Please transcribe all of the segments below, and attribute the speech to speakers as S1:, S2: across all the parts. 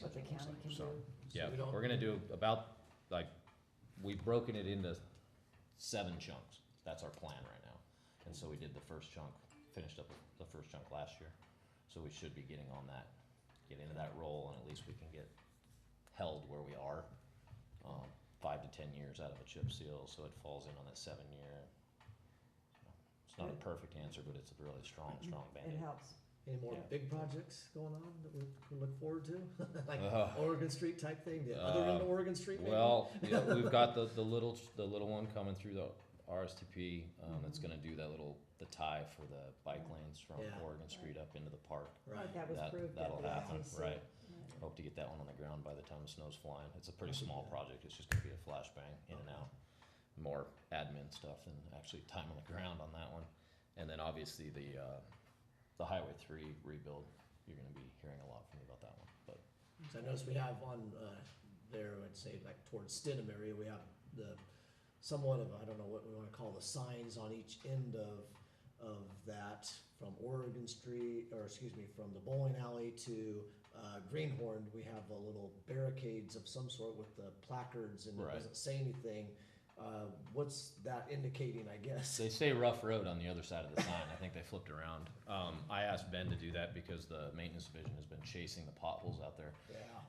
S1: what the county can do.
S2: So,
S3: Yeah,
S2: we don't-
S3: we're gonna do about, like, we've broken it into seven chunks. That's our plan right now. And so we did the first chunk, finished up the first chunk last year. So we should be getting on that, get into that role and at least we can get held where we are. Um, five to ten years out of a chip seal, so it falls in on that seven year. It's not a perfect answer, but it's a really strong, strong
S1: It
S3: band-aid.
S1: helps.
S2: Any more
S4: Yeah.
S2: big projects going on that we can look forward to? Like
S3: Ugh.
S2: Oregon Street type thing, the other end
S3: Uh,
S2: of Oregon Street maybe?
S3: Well, yeah, we've got the, the little, the little one coming through the RSTP, um, that's
S1: Mhm.
S3: gonna do that little, the tie for the bike lanes from
S2: Yeah.
S3: Oregon Street up into the park.
S2: Right,
S1: That was
S3: That,
S1: proved.
S3: that'll happen, right?
S1: right.
S3: Hope to get that one on the ground by the time the snow's flying. It's a pretty
S2: That'd be
S3: small
S2: good.
S3: project, it's just gonna be a flashbang in and
S2: Okay.
S3: out. More admin stuff than actually time on the ground on that one. And then obviously the, uh, the Highway three rebuild, you're gonna be hearing a lot from me about that one, but
S2: So I noticed we have on, uh, there, I'd say like towards Stidham area, we have the, somewhat of, I don't know what we wanna call the signs on each end of, of that from Oregon Street, or excuse me, from the bowling alley to, uh, Greenhorn, we have a little barricades of some sort with the placards and it
S3: Right.
S2: doesn't say anything. Uh, what's that indicating, I guess?
S3: They say rough road on the other side of the sign. I think they flipped around. Um, I asked Ben to do that because the maintenance division has been chasing the potholes out there.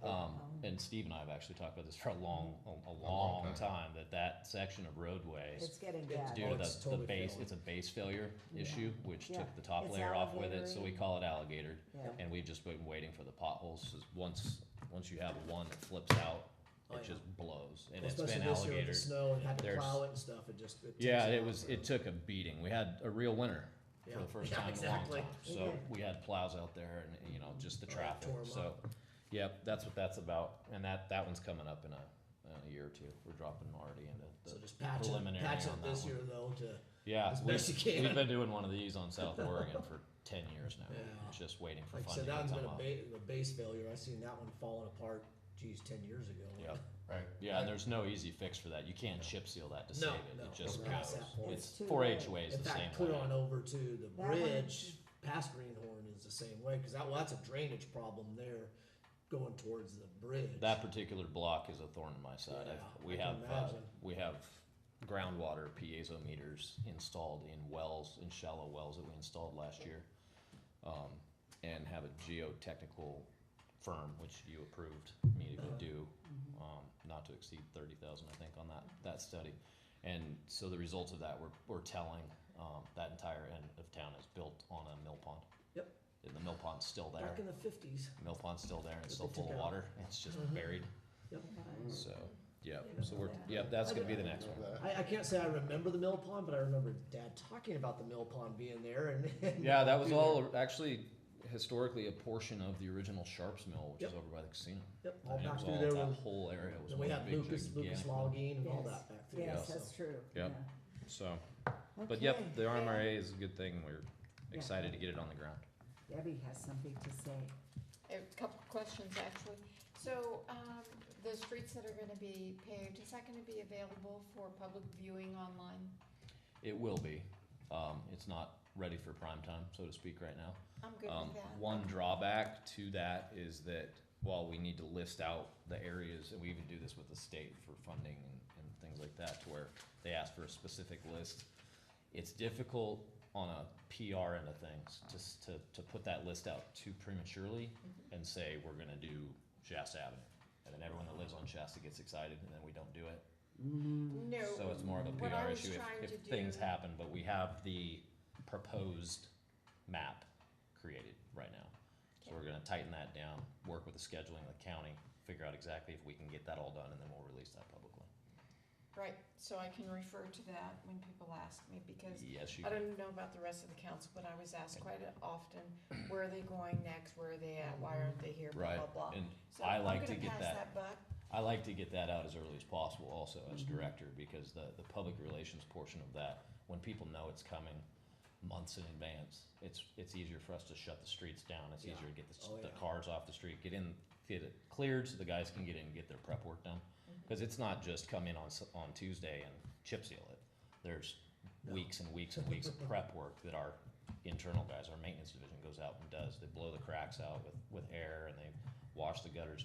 S2: Yeah.
S3: Um, and Steve and I have actually talked about this for a long, a, a long time, that that section of roadway,
S1: It's getting
S2: It's
S1: bad.
S3: due
S2: Oh,
S3: to
S2: it's
S3: the, the
S2: totally
S3: base,
S2: failing.
S3: it's a base failure
S1: Yeah.
S3: issue, which
S1: Yeah.
S3: took the top
S1: It's
S3: layer off with it, so we
S1: alligatoring.
S3: call it alligatored.
S1: Yeah.
S3: And we've just been waiting for the potholes, 'cause once, once you have one that flips out,
S2: Oh,
S3: it
S2: yeah.
S3: just blows, and
S2: Well,
S3: it's been
S2: Especially this year with the
S3: alligatored.
S2: snow and had to
S3: There's-
S2: plow it and stuff, it just. takes
S3: Yeah,
S2: a
S3: it
S2: lot
S3: was,
S2: for-
S3: it took a beating. We had a real winter
S2: Yeah.
S3: for the first
S2: Yeah,
S3: time in a long
S2: exactly.
S3: time.
S1: We
S3: So
S1: did.
S3: we had plows out there and, you know, just the
S2: Oh, it
S3: traffic,
S2: tore 'em
S3: so. Yep, that's what that's about. And that, that one's coming up in a, in a year or two. We're dropping already into
S2: So
S3: the,
S2: just patch it,
S3: preliminary
S2: patch
S3: on
S2: it
S3: that
S2: this
S3: one.
S2: year though to.
S3: yeah.
S2: as
S3: we-
S2: best you can.
S3: We've been doing one of these on South Oregon for ten years now.
S2: Yeah.
S3: It's Just waiting for
S2: Like I
S3: funding
S2: said, that
S3: to
S2: one's
S3: come
S2: been a
S3: up.
S2: ba- a base failure. I seen that one falling apart, geez, ten years ago.
S3: Yeah, yeah, and there's no easy fix for that. You can't chip seal that to save
S2: No,
S3: it.
S2: no,
S3: It just
S2: it's past
S3: goes.
S2: that point.
S3: It's
S1: It's too
S3: four H
S1: late.
S3: ways
S2: In
S3: the same way.
S2: fact, clear on over to the
S1: one-
S2: bridge past Greenhorn is the same way, cause that, well, that's a drainage problem there going towards the bridge.
S3: That particular block is a thorn in my side. I've-
S2: Yeah,
S3: We
S2: I
S3: have,
S2: can
S3: uh,
S2: imagine.
S3: we have groundwater piezo meters installed in wells, in shallow wells that we installed last year. Um, and have a geotechnical firm, which you approved me to go
S2: Uh-huh.
S3: do, um, not to exceed thirty thousand, I think, on that, that study. And so the results of that, we're, we're telling, um, that entire end of town is built on a mill pond.
S2: Yep.
S3: And the mill pond's still there.
S2: Back in the fifties.
S3: Mill pond's still there and it's still
S2: That they
S3: full
S2: took
S3: of
S2: out.
S3: water. It's just
S2: Mm-hmm.
S3: buried. So, yeah,
S1: Yeah.
S3: so we're, yeah, that's gonna be the next one.
S2: I, I can't say I remember the mill pond, but I remember dad talking about the mill pond being there and. and
S3: Yeah, that was
S2: being there.
S3: all actually historically a portion of the original Sharps Mill, which is
S2: Yep.
S3: over by the casino.
S2: Yep, all
S3: And it
S2: back
S3: was
S2: through
S3: all,
S2: there
S3: that
S2: was,
S3: whole area was
S2: then we
S3: one
S2: had
S3: big
S2: Lucas, Lucas
S3: gigantic one.
S2: Logging and all
S1: Yes.
S2: that back through. there,
S1: Yes,
S2: so.
S1: that's true.
S3: Yep.
S1: yeah.
S3: So, but yep, the
S1: Okay.
S3: RMRA is a good thing. We're
S1: Yeah.
S3: excited to get it on the ground.
S1: Debbie has something to say.
S5: A couple questions, actually. So, um, the streets that are gonna be paved, is that gonna be available for public viewing online?
S3: It will be. Um, it's not ready for prime time, so to speak, right now.
S5: I'm good
S3: Um,
S5: with that.
S3: One drawback to that is that while we need to list out the areas, and we even do this with the state for funding and, and things like that, to where they ask for a specific list, it's difficult on a PR end of things, just to, to put that list out too prematurely
S5: Mm-hmm.
S3: and say, we're gonna do Shasta Avenue. And then everyone that lives on Shasta gets excited, and then we don't do it.
S1: Mm-hmm.
S5: No.
S3: So it's more of a
S5: what I
S3: PR
S5: was
S3: issue
S5: trying
S3: if, if
S5: to
S3: things
S5: do-
S3: happen, but we have the proposed map created right now. So we're gonna tighten that down, work with the scheduling of the county, figure out exactly if we can get that all done, and then we'll release that publicly.
S5: Right, so I can refer to that when people ask me, because
S3: Yes, you,
S5: I don't know about the rest of the council, but I was asked quite often, where are they going next, where are they at, why aren't they here, blah,
S3: right,
S5: blah, blah.
S3: and
S5: So
S3: I
S5: I'm
S3: like
S5: gonna
S3: to get
S5: pass
S3: that-
S5: buck.
S3: I like to get that out as early as possible also as
S2: Mm-hmm.
S3: director, because the, the public relations portion of that, when people know it's coming months in advance, it's, it's easier for us to shut the streets down, it's
S2: Yeah.
S3: easier to get the, s-
S2: Oh,
S3: the
S2: yeah.
S3: cars off the street, get in, get it cleared so the guys can get in and get their prep work done.
S2: Mm-hmm.
S3: Cause it's not just come in on, s- on Tuesday and chip seal it, there's
S2: No.
S3: weeks and weeks and weeks of prep work that our internal guys, our maintenance division goes out and does, they blow the cracks out with, with air and they wash the gutters